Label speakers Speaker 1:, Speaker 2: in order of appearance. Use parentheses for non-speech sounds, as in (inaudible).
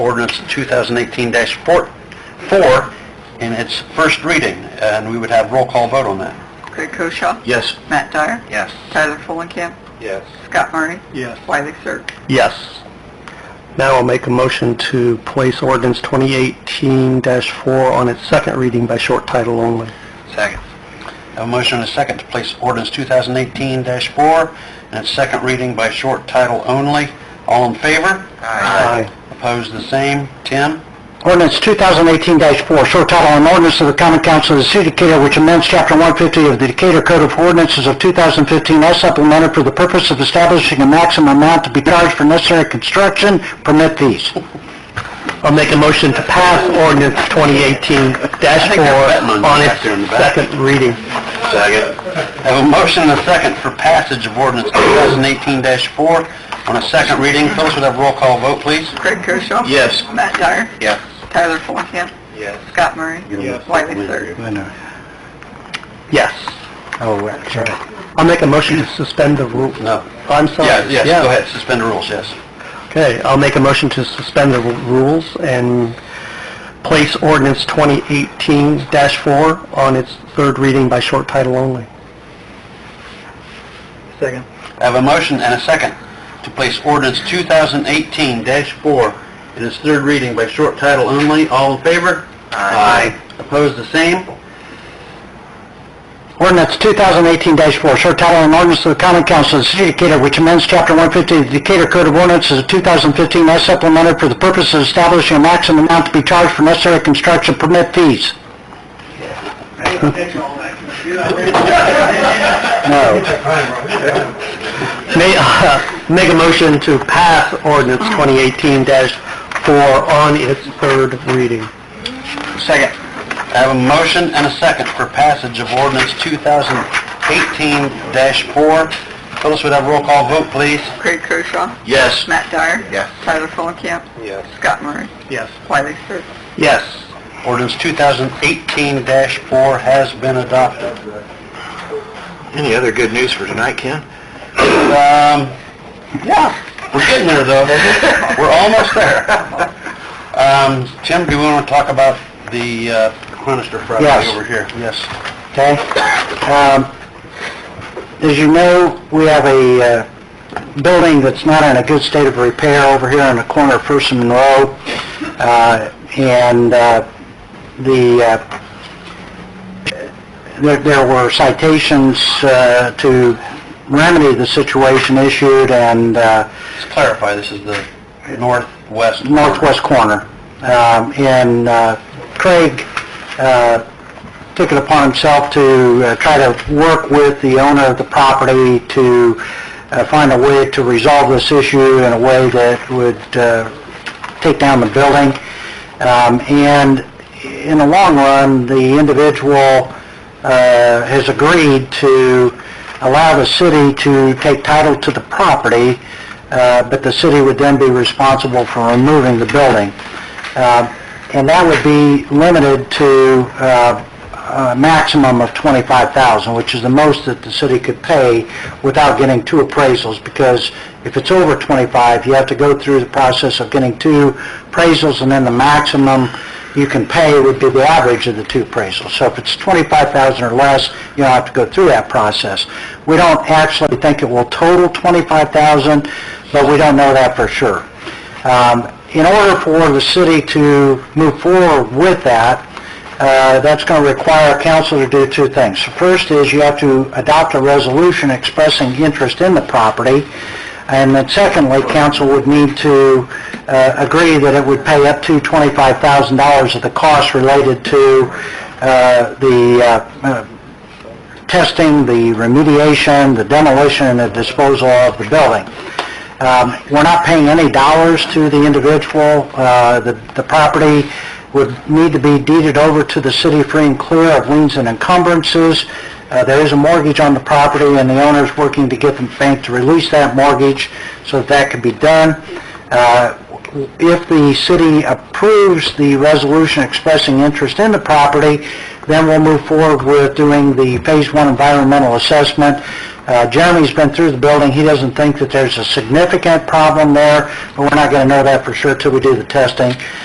Speaker 1: ordinance 2018-4 four in its first reading, and we would have roll call vote on that.
Speaker 2: Craig Koshaw.
Speaker 1: Yes.
Speaker 2: Matt Dyer.
Speaker 1: Yes.
Speaker 2: Tyler Fulenkamp.
Speaker 1: Yes.
Speaker 2: Scott Murray.
Speaker 1: Yes.
Speaker 2: Wiley Sir.
Speaker 1: Yes. Now I'll make a motion to place ordinance 2018-4 on its second reading by short title only. Second. Have a motion and a second to place ordinance 2018-4 in its second reading by short title only. All in favor? Aye. Opposed, the same. Tim?
Speaker 3: Ordinance 2018-4, short title, an ordinance of the common council of the city of Decatur which amends chapter 150 of the Decatur Code of Ordinances of 2015 as supplemented for the purpose of establishing a maximum amount to be charged for necessary construction permit fees.
Speaker 1: I'll make a motion to pass ordinance 2018-4 on its second reading. Second. Have a motion and a second for passage of ordinance 2018-4 on a second reading. Phyllis, would have roll call vote, please?
Speaker 2: Craig Koshaw.
Speaker 1: Yes.
Speaker 2: Matt Dyer.
Speaker 1: Yes.
Speaker 2: Tyler Fulenkamp.
Speaker 1: Yes.
Speaker 2: Scott Murray. Wiley Sir.
Speaker 1: Yes.
Speaker 3: Oh, right, sorry.
Speaker 1: I'll make a motion to suspend the rule. No.
Speaker 3: I'm sorry.
Speaker 1: Yeah, yes,
Speaker 3: Yeah.
Speaker 1: go ahead, suspend the rules, yes.
Speaker 3: Okay, I'll make a motion to suspend the rules and place ordinance 2018-4 on its third reading by short title only.
Speaker 1: Second. I have a motion and a second to place ordinance 2018-4 in its third reading by short title only. All in favor? Aye. Opposed, the same?
Speaker 3: Ordinance 2018-4, short title, an ordinance of the common council of the city of Decatur which amends chapter 150 of the Decatur Code of Ordinances of 2015 as supplemented for the purpose of establishing a maximum amount to be charged for necessary construction permit fees.
Speaker 1: May, uh, make a motion to pass ordinance 2018-4 on its third reading. Second. I have a motion and a second for passage of ordinance 2018-4. Phyllis, would have roll call vote, please?
Speaker 2: Craig Koshaw.
Speaker 1: Yes.
Speaker 2: Matt Dyer.
Speaker 1: Yes.
Speaker 2: Tyler Fulenkamp.
Speaker 1: Yes.
Speaker 2: Scott Murray.
Speaker 1: Yes.
Speaker 2: Wiley Sir.
Speaker 1: Yes. Ordinance 2018-4 has been adopted. Any other good news for tonight, Ken? Um, yeah, we're getting there, though.
Speaker 4: (laughs)
Speaker 1: We're almost there. Um, Tim, do we want to talk about the uh, Cronister property
Speaker 3: Yes.
Speaker 1: over here? Yes.
Speaker 3: Okay? Um, As you know, we have a uh, building that's not in a good state of repair over here on the corner of First and Monroe, Uh, and uh, the, uh, there there were citations uh, to remedy the situation issued, and uh,
Speaker 1: Let's clarify, this is the northwest. corner.
Speaker 3: northwest corner. Um, And uh, Craig uh, took it upon himself to uh, try to work with the owner of the property to uh, find a way to resolve this issue in a way that would uh, take down the building. Um, And in the long run, the individual uh, has agreed to allow the city to take title to the property, uh, but the city would then be responsible for removing the building. Uh, And that would be limited to uh, a maximum of 25000 which is the most that the city could pay without getting two appraisals, because if it's over 25 you have to go through the process of getting two appraisals, and then the maximum you can pay would be the average of the two appraisals. So if it's 25,000 or less, you don't have to go through that process. We don't actually think it will total 25,000, but we don't know that for sure. Um, In order for the city to move forward with that, uh, that's going to require council to do two things. The First is you have to adopt a resolution expressing interest in the property, and then secondly, council would need to uh, agree that it would pay up to $25,000 of the costs related to uh, the uh, uh, testing, the remediation, the demolition, and the disposal of the building. Um, We're not paying any dollars to the individual. Uh, The the property would need to be deeded over to the city free and clear of liens and encumbrances. Uh, There is a mortgage on the property, and the owner's working to get the bank to release that mortgage so that that can be done. Uh, If the city approves the resolution expressing interest in the property, then we'll move forward with doing the Phase 1 environmental assessment
Speaker 4: Uh, Jeremy's been through the building, he doesn't think that there's a significant problem there, but we're not going to know that for sure till we do the testing.